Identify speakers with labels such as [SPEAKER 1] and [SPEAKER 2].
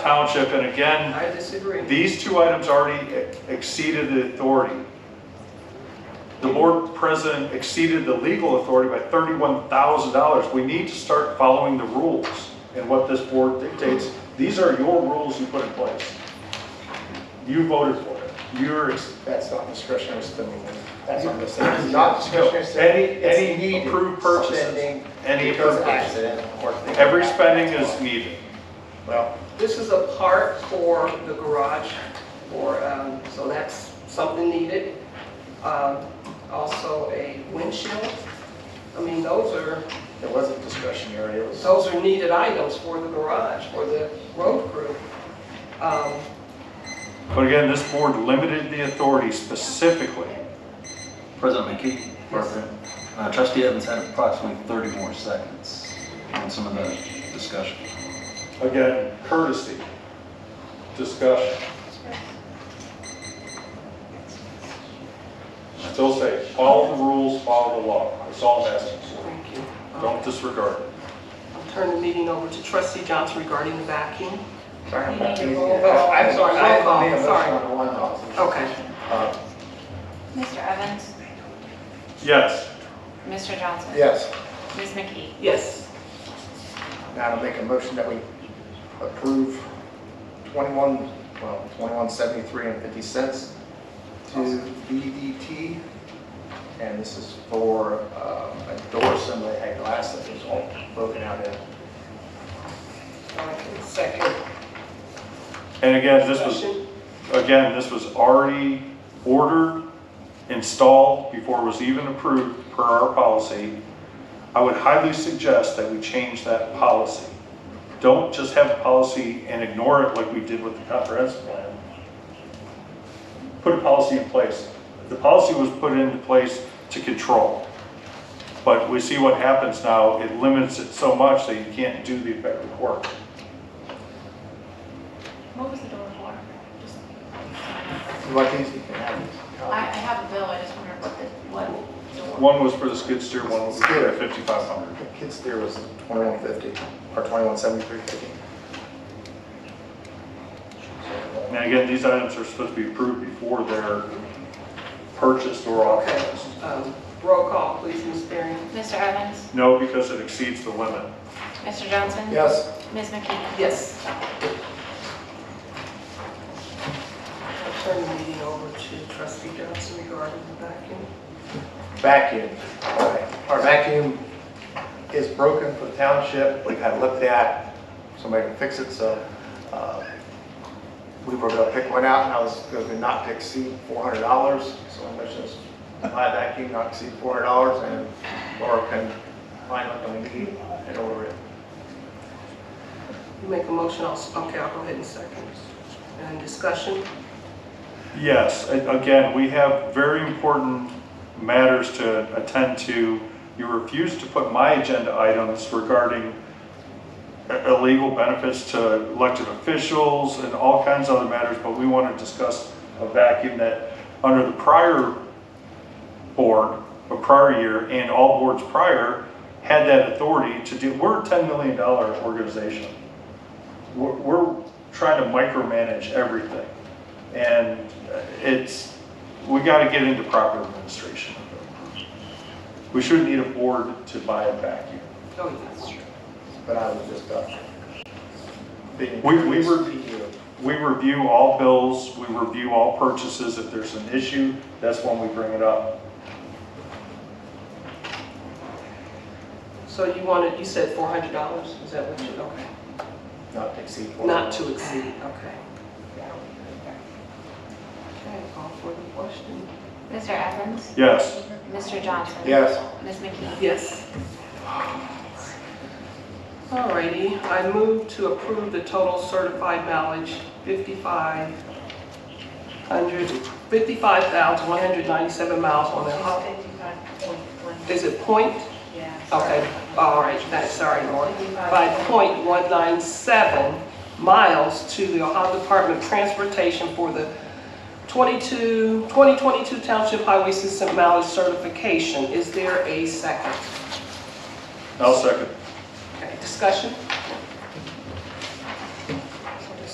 [SPEAKER 1] township, and again,
[SPEAKER 2] I disagree.
[SPEAKER 1] these two items already e- exceeded the authority. The board president exceeded the legal authority by thirty-one thousand dollars. We need to start following the rules and what this board dictates. These are your rules you put in place. You voted for it. You're, ex-
[SPEAKER 3] That's not discretionary spending. That's on the
[SPEAKER 4] It's Not discretionary spending.
[SPEAKER 1] any,
[SPEAKER 4] It's
[SPEAKER 1] any
[SPEAKER 4] needed
[SPEAKER 1] approved purchases,
[SPEAKER 4] spending
[SPEAKER 1] any
[SPEAKER 4] Because
[SPEAKER 1] approved purchases.
[SPEAKER 4] accident or thing.
[SPEAKER 1] Every spending is needed.
[SPEAKER 3] Well,
[SPEAKER 2] This is a part for the garage, for, um, so that's something needed. Um, Also a windshield. I mean, those are,
[SPEAKER 3] it wasn't discretionary, it was.
[SPEAKER 2] those are needed items for the garage, for the road crew. Um,
[SPEAKER 1] But again, this board limited the authority specifically.
[SPEAKER 5] President McKee, uh, trustee Evans had approximately 30 more seconds on some of the discussion.
[SPEAKER 1] Again, courtesy, discussion. I Still say, follow the rules, follow the law. That's all I'm asking for.
[SPEAKER 2] Thank you. Um,
[SPEAKER 1] Don't disregard it.
[SPEAKER 2] I'll turn the meeting over to trustee Johnson regarding the vacuum.
[SPEAKER 3] Sorry, I'm
[SPEAKER 6] need
[SPEAKER 3] not
[SPEAKER 6] to
[SPEAKER 3] doing
[SPEAKER 6] roll
[SPEAKER 3] it.
[SPEAKER 6] call.
[SPEAKER 3] I'm sorry, uh, I
[SPEAKER 2] Roll call,
[SPEAKER 3] made a motion
[SPEAKER 2] sorry.
[SPEAKER 3] on one motion.
[SPEAKER 2] Okay.
[SPEAKER 3] Uh,
[SPEAKER 6] Mr. Evans?
[SPEAKER 1] Yes,
[SPEAKER 6] Mr. Johnson?
[SPEAKER 3] Yes,
[SPEAKER 6] Ms. McKee?
[SPEAKER 2] Yes.
[SPEAKER 3] now to make a motion that we approve 21, well, 21.73 and 50 cents to BDT. And this is for um, a door assembly at glass that was all broken out in.
[SPEAKER 2] I can Second.
[SPEAKER 1] and again, this was,
[SPEAKER 2] Discussion.
[SPEAKER 1] again, this was already ordered, installed before it was even approved per our policy. I would highly suggest that we change that policy. Don't just have a policy and ignore it like we did with the comprehensive plan. Put a policy in place. The policy was put into place to control. But we see what happens now, it limits it so much that you can't do the effective work.
[SPEAKER 6] What was the door for? Just-
[SPEAKER 3] You want these? You can have
[SPEAKER 6] I, I have a bill, I just wondered what the, what door.
[SPEAKER 1] One was for the skid steer, one was for the 5500.
[SPEAKER 3] these. The Kids there was 21.50 or 21.73.50.
[SPEAKER 1] Now, again, these items are supposed to be approved before they're purchased or
[SPEAKER 2] Okay.
[SPEAKER 1] authorized.
[SPEAKER 2] Um, Roll call, please, Ms. Barry.
[SPEAKER 6] Mr. Evans?
[SPEAKER 1] No, because it exceeds the limit.
[SPEAKER 6] Mr. Johnson?
[SPEAKER 3] Yes.
[SPEAKER 6] Ms. McKee?
[SPEAKER 2] Yes. I'll turn the meeting over to trustee Johnson regarding the vacuum.
[SPEAKER 3] vacuum. All right. Our vacuum is broken for the township. We've had it looked at. Somebody can fix it, so uh, we were going to pick one out, and I was going to not to exceed $400. So I mentioned this, buy a vacuum, not exceed $400, and Laura can find what we need and order it.
[SPEAKER 2] You make a motion, I'll, s- okay, I'll go ahead and second. And discussion?
[SPEAKER 1] Yes, a- again, we have very important matters to attend to. You refused to put my agenda items regarding i- illegal benefits to elected officials and all kinds of other matters, but we want to discuss a vacuum that, under the prior board, a prior year, and all boards prior, had that authority to do, we're a $10 million organization. We're- We're trying to micromanage everything. And it's, we got to get into proper administration. We shouldn't need a board to buy a vacuum.
[SPEAKER 2] Oh, that's true.
[SPEAKER 3] But I was just, uh, being.
[SPEAKER 1] We- we were-
[SPEAKER 3] You.
[SPEAKER 1] We review all bills, we review all purchases. If there's an issue, that's when we bring it up.
[SPEAKER 2] So you wanted, you said four hundred dollars, is that what you, okay.
[SPEAKER 3] Not to exceed $400.
[SPEAKER 2] Not to exceed, okay. Okay, call for the question.
[SPEAKER 6] Mr. Evans?
[SPEAKER 1] Yes.
[SPEAKER 6] Mr. Johnson?
[SPEAKER 3] Yes.
[SPEAKER 6] Ms. McKee?
[SPEAKER 2] Yes. Alrighty, I move to approve the total certified mileage 5500, 55,197 miles on the, hol- is it point?
[SPEAKER 6] Yeah.
[SPEAKER 2] Okay, all right, that's, sorry, Lauren. By .197 miles to the Ohio Department of Transportation for the 22, 2022 Township Highway System mileage certification. Is there a second?
[SPEAKER 1] I'll second.
[SPEAKER 2] Okay, discussion?